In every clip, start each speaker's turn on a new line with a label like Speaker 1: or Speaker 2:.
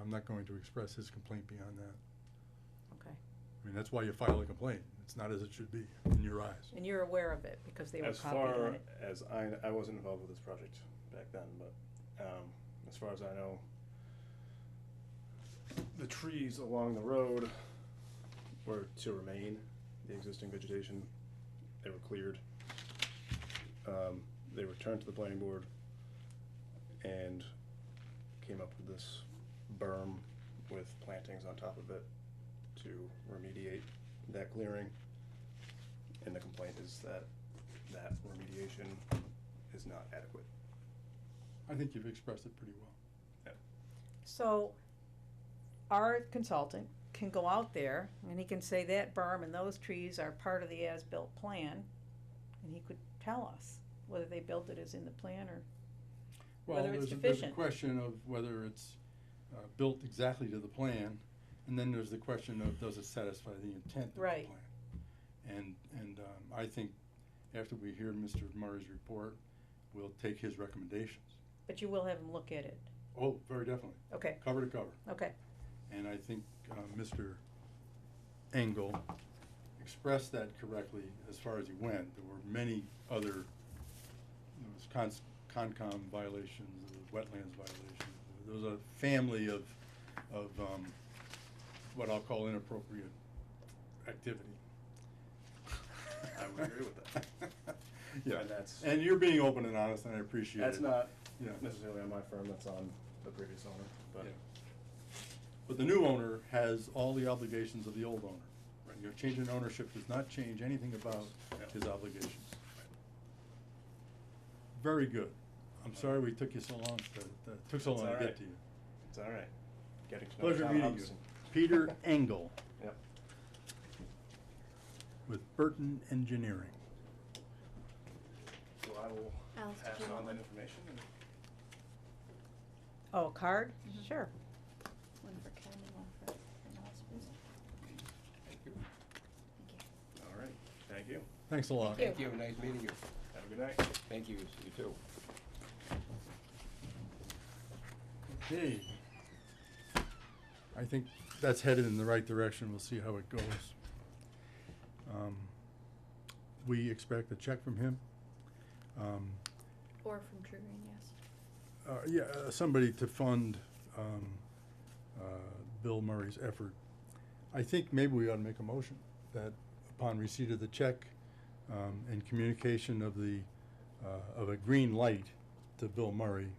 Speaker 1: I'm not going to express his complaint beyond that.
Speaker 2: Okay.
Speaker 1: I mean, that's why you file a complaint. It's not as it should be in your eyes.
Speaker 2: And you're aware of it because they were
Speaker 3: As
Speaker 2: copied on
Speaker 3: far
Speaker 2: it.
Speaker 3: as I, I wasn't involved with this project back then, but, um, as far as I know, the trees along the road were to remain, the existing vegetation, they were cleared. Um, they returned to the planning board and came up with this berm with plantings on top of it to remediate that clearing. And the complaint is that that remediation is not adequate.
Speaker 1: I think you've expressed it pretty well.
Speaker 2: So our consultant can go out there and he can say that berm and those trees are part of the as-built plan. And he could tell us whether they built it as in the plan or,
Speaker 1: Well,
Speaker 2: Whether it's
Speaker 1: there's, a- there's a
Speaker 2: deficient.
Speaker 1: question of whether it's, uh, built exactly to the plan, and then there's the question of does it satisfy the intent of the plan?
Speaker 2: Right.
Speaker 1: And, and, um, I think after we hear Mr. Murray's report, we'll take his recommendations.
Speaker 2: but you will have him look at it.
Speaker 1: Oh, very definitely,
Speaker 2: Okay,
Speaker 1: cover to cover.
Speaker 2: okay,
Speaker 1: And I think, uh, Mr. Engel expressed that correctly as far as he went. There were many other, there was cons- Concom violations, there was wetlands violations. There was a family of, of, um, what I'll call inappropriate activity.
Speaker 3: I would agree with that.
Speaker 1: Yeah,
Speaker 3: And that's,
Speaker 1: and you're being open and honest, and I appreciate it.
Speaker 3: that's not
Speaker 1: Yeah.
Speaker 3: necessarily on my firm, that's on the previous owner, but
Speaker 1: Yeah. But the new owner has all the obligations of the old owner. Right. Your change in ownership does not change anything about
Speaker 3: Yeah.
Speaker 1: his obligations. Very good. I'm sorry we took you so long to, that took so long
Speaker 3: It's
Speaker 1: to
Speaker 3: all right.
Speaker 1: get to you.
Speaker 3: it's all right. Getting to know the
Speaker 1: Pleasure
Speaker 3: town
Speaker 1: meeting you.
Speaker 3: office and-
Speaker 1: Peter Engel
Speaker 3: Yep.
Speaker 1: with Burton Engineering.
Speaker 3: So I will
Speaker 4: Alice, did
Speaker 3: pass
Speaker 4: you
Speaker 3: on
Speaker 4: want
Speaker 3: that
Speaker 4: one?
Speaker 3: information and
Speaker 2: oh, a card?
Speaker 4: Mhm.
Speaker 2: Sure.
Speaker 4: One for Ken and one for Alice, please.
Speaker 5: Thank you.
Speaker 4: Thank you.
Speaker 3: All right, thank you.
Speaker 1: Thanks a lot.
Speaker 2: Thank
Speaker 5: Thank you, nice meeting you.
Speaker 3: Have a good night.
Speaker 5: Thank you, you too.
Speaker 1: Okay. I think that's headed in the right direction. We'll see how it goes. Um, we expect a check from him. Um,
Speaker 4: Or from True Green, yes.
Speaker 1: uh, yeah, uh, somebody to fund, um, uh, Bill Murray's effort. I think maybe we ought to make a motion that upon receipt of the check, um, and communication of the, uh, of a green light to Bill Murray,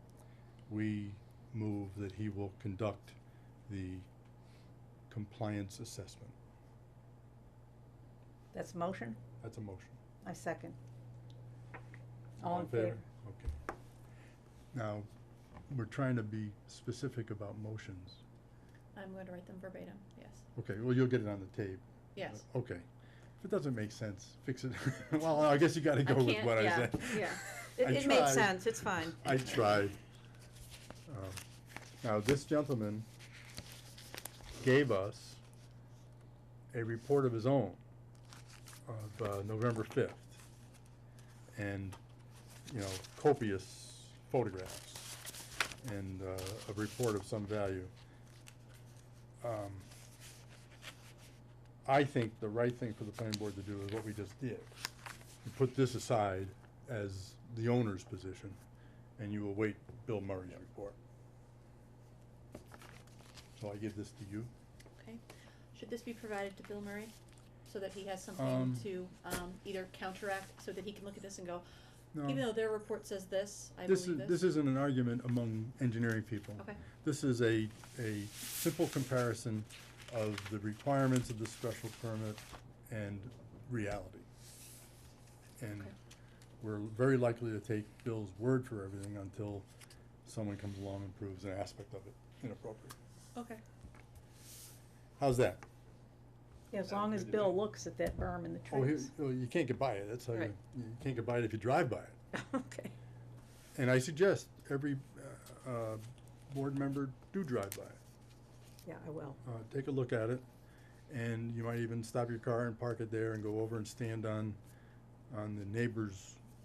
Speaker 1: we move that he will conduct the compliance assessment.
Speaker 2: That's a motion?
Speaker 1: That's a motion.
Speaker 2: I second. All in favor?
Speaker 1: Okay. Now, we're trying to be specific about motions.
Speaker 4: I'm going to write them verbatim, yes.
Speaker 1: Okay, well, you'll get it on the tape.
Speaker 4: Yes.
Speaker 1: Uh, Okay. If it doesn't make sense, fix it. Well, I guess you gotta
Speaker 4: I
Speaker 1: go with
Speaker 4: can't-
Speaker 1: what I
Speaker 4: yeah,
Speaker 1: said.
Speaker 4: yeah.
Speaker 2: It,
Speaker 1: I
Speaker 2: it makes
Speaker 1: tried.
Speaker 2: sense, it's fine.
Speaker 1: I tried. Um, Now, this gentleman gave us a report of his own of uh, November fifth. And, you know, copious photographs and uh, a report of some value. Um, I think the right thing for the planning board to do is what we just did. You put this aside as the owner's position, and you await Bill Murray's report. So I give this to you.
Speaker 4: Okay. Should this be provided to Bill Murray? So that he has something
Speaker 1: Um,
Speaker 4: to, um, either counteract, so that he can look at this and go,
Speaker 1: No,
Speaker 4: even though their report says this, I
Speaker 1: This
Speaker 4: believe
Speaker 1: is, this isn't an argument among engineering people.
Speaker 4: Okay,
Speaker 1: This is a, a simple comparison of the requirements of the special permit and reality. And
Speaker 4: Okay.
Speaker 1: we're very likely to take Bill's word for everything until someone comes along and proves an aspect of it inappropriate.
Speaker 4: okay.
Speaker 1: How's that?
Speaker 2: Yeah, As long as Bill looks at that berm and the
Speaker 1: Oh, here,
Speaker 2: trees.
Speaker 1: oh, you can't get by it, that's how you,
Speaker 2: Right.
Speaker 1: you can't get by it if you drive by it.
Speaker 2: Okay.
Speaker 1: And I suggest every, uh, uh, board member do drive by it.
Speaker 2: Yeah, I will.
Speaker 1: uh, take a look at it, and you might even stop your car and park it there and go over and stand on, on the neighbor's